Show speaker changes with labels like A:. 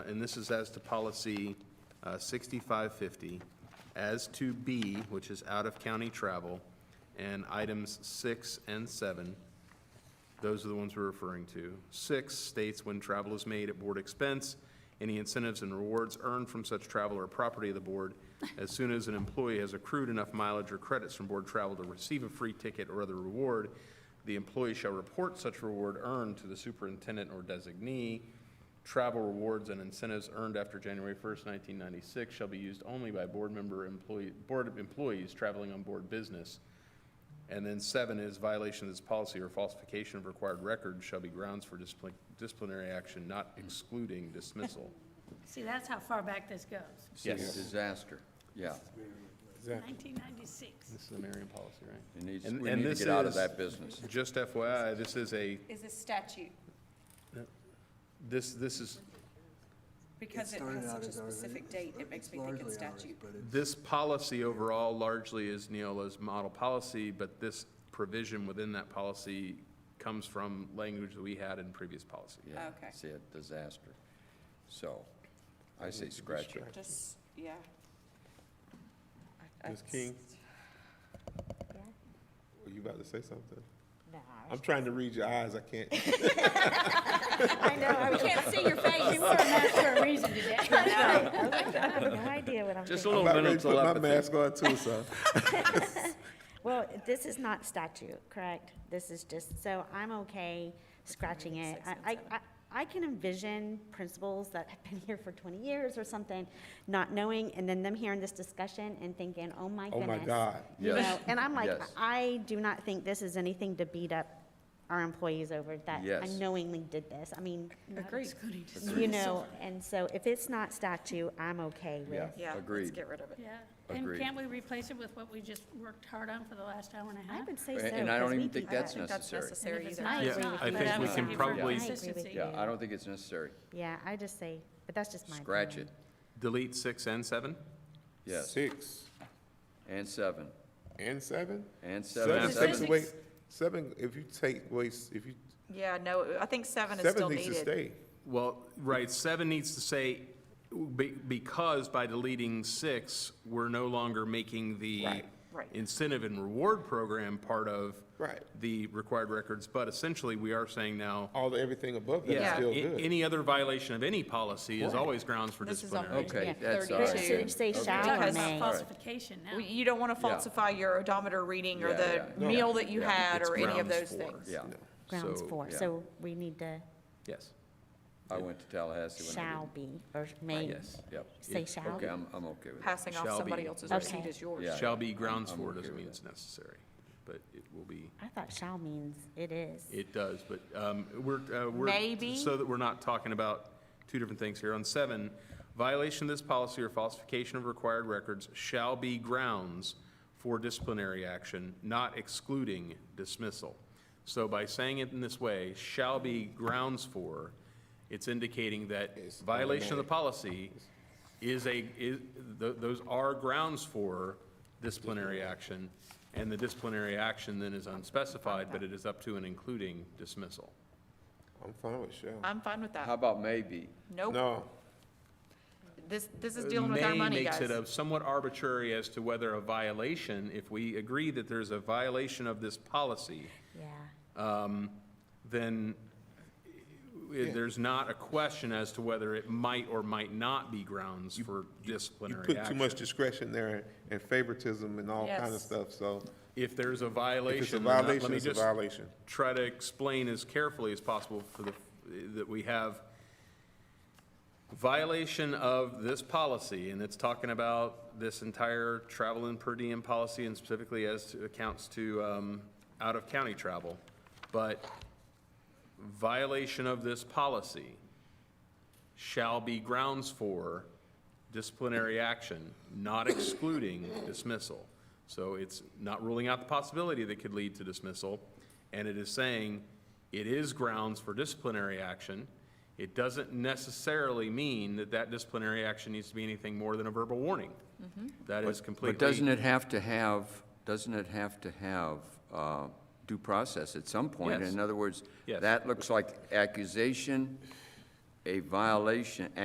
A: And this is as to policy uh, 6550, as to B, which is out-of-county travel, and items six and seven. Those are the ones we're referring to. Six states when travel is made at board expense, any incentives and rewards earned from such travel are property of the board. As soon as an employee has accrued enough mileage or credits from board travel to receive a free ticket or other reward, the employee shall report such reward earned to the superintendent or designee. Travel rewards and incentives earned after January 1st, 1996 shall be used only by board member employee, board employees traveling on board business. And then seven is violation of this policy or falsification of required records shall be grounds for discipli- disciplinary action, not excluding dismissal.
B: See, that's how far back this goes,
A: Yes.
C: It's a disaster, yeah.
B: 1996.
A: This is the Marion policy, right?
C: It needs,
A: And-
C: we
A: and
C: need to
A: this
C: get out of
A: is-
C: that business.
A: Just FYI, this is a,
D: is a statute,
A: this, this is,
D: because it
E: started
D: has
E: out
D: such a
E: as ours, and
D: specific
E: it's-
D: date, it makes me think it's
E: largely ours,
D: statute.
E: but it-
A: this policy overall largely is Neola's model policy, but this provision within that policy comes from language that we had in previous policy.
C: Yeah,
D: Okay.
C: See, a disaster. So, I say scratch it.
D: Just, yeah. I- I-
F: Ms. King? Were Oh, you about to say something?
G: No,
F: I'm trying to read your eyes, I can't.
G: I know, I
B: We
G: was-
B: can't see your face, you wore a mask for a reason today.
G: I have no idea what I'm
A: Just a
G: thinking.
A: little
F: I'm about ready to
A: mental
F: put my
A: apathy.
F: mask on too, so.
G: Well, this is not statute, correct? This is just, so I'm okay scratching it. I, I, I can envision principals that have been here for twenty years or something, not knowing, and then them hearing this discussion and thinking, oh my
F: Oh
G: goodness.
F: my God.
G: You
C: Yes.
G: know, and I'm like,
C: Yes.
G: I do not think this is anything to beat up our employees over that
C: Yes.
G: unknowingly did this. I mean,
D: Agreed.
G: you know, and so if it's not statute, I'm okay with.
C: Yeah,
D: Yeah, let's
C: agreed.
D: get rid of it.
B: Yeah, and
C: Agreed.
B: can't we replace it with what we just worked hard on for the last hour and a
G: I
B: half?
G: would say so.
C: And- and I
G: 'cause
C: don't
G: we
C: even think
G: do that.
C: that's
D: think that's
C: necessary.
B: And
D: necessary
B: if it's
D: either.
B: not,
G: Yeah,
B: it's not,
G: I
B: but
G: think
B: I
G: we
B: would
G: can
B: say for
A: probably-
B: consistency.
C: Yeah, I don't think it's necessary.
G: Yeah, I just say, but that's just my.
C: Scratch it,
G: opinion.
A: Delete six and seven?
C: yes.
F: Six
C: And seven,
F: and seven?
C: and
F: Seven
C: seven.
A: Seven.
F: takes away, seven, if you take away, s- if you,
D: Yeah, no, I think seven is still
F: seven needs to
D: needed.
F: stay.
A: Well, right, seven needs to say, be- because by deleting six, we're no longer making the
F: Right.
D: Right.
A: incentive and reward program part of
F: Right.
A: the required records, but essentially, we are saying now,
F: All the, everything above that is
A: yeah,
F: still
A: a-
F: good.
A: any other violation of any policy is always grounds for
D: This is
A: disciplinary.
D: on-
C: Okay,
G: Yeah.
C: that's all
G: But
C: right.
G: it should say
B: We're
G: shall
B: talking
G: or
D: Because-
B: about
G: may.
B: falsification now.
D: Well, You don't want to falsify your odometer reading or
C: Yeah,
D: the
C: yeah,
D: meal that you
C: yeah.
D: had
A: It's
D: or any of
A: grounds
D: those
A: for.
D: things.
C: Yeah,
G: grounds
A: So,
G: for,
C: yeah.
G: so we need to
A: Yes.
C: I went to Tallahassee when I
G: shall be, or may.
C: did. Yes, yep.
G: Say
C: It-
G: shall
C: Okay,
G: be.
C: I'm, I'm okay with that.
D: Passing off
A: Shall
D: somebody
A: be.
D: else's
G: Okay.
D: receipt as yours.
C: Yeah.
A: Shall be grounds
C: I'm- I'm
A: for
C: okay
A: doesn't
C: with
A: mean
C: that.
A: it's necessary, but it will be,
G: I thought shall means it is.
A: it does, but um, we're, uh, we're.
D: Maybe.
A: So that we're not talking about two different things here. On seven, violation of this policy or falsification of required records shall be grounds for disciplinary action, not excluding dismissal. So by saying it in this way, shall be grounds for, it's indicating that violation of the policy is a, is, th- those are grounds for disciplinary action, and the disciplinary action then is unspecified, but it is up to and including dismissal.
F: I'm fine with shall.
D: I'm fine with
C: How
D: that.
C: about maybe?
D: Nope,
F: No,
D: this, this is dealing with our
A: Uh, May
D: money, guys.
A: makes it a somewhat arbitrary as to whether a violation, if we agree that there's a violation of this policy,
G: Yeah,
A: then eh, there's not a question as to whether it might or might not be grounds for
F: you
A: disciplinary
F: put too
A: action.
F: much discretion there and favoritism and all kind of
D: Yes.
F: stuff, so
A: If there's a
F: if it's a
A: violation, then let
F: violation,
A: me
F: it's a
A: just
F: violation.
A: try to explain as carefully as possible for the, that we have violation of this policy, and it's talking about this entire travel and per diem policy, and specifically as to- accounts to um, out-of-county travel, but violation of this policy shall be grounds for disciplinary action, not excluding dismissal. So it's not ruling out the possibility that could lead to dismissal, and it is saying it is grounds for disciplinary action. It doesn't necessarily mean that that disciplinary action needs to be anything more than a verbal warning. That is completely.
C: Mm-hmm. But doesn't it have to have, doesn't it have to have uh, due process at some point?
A: Yes.
C: In other words,
A: Yes.
C: that looks like accusation, a violation,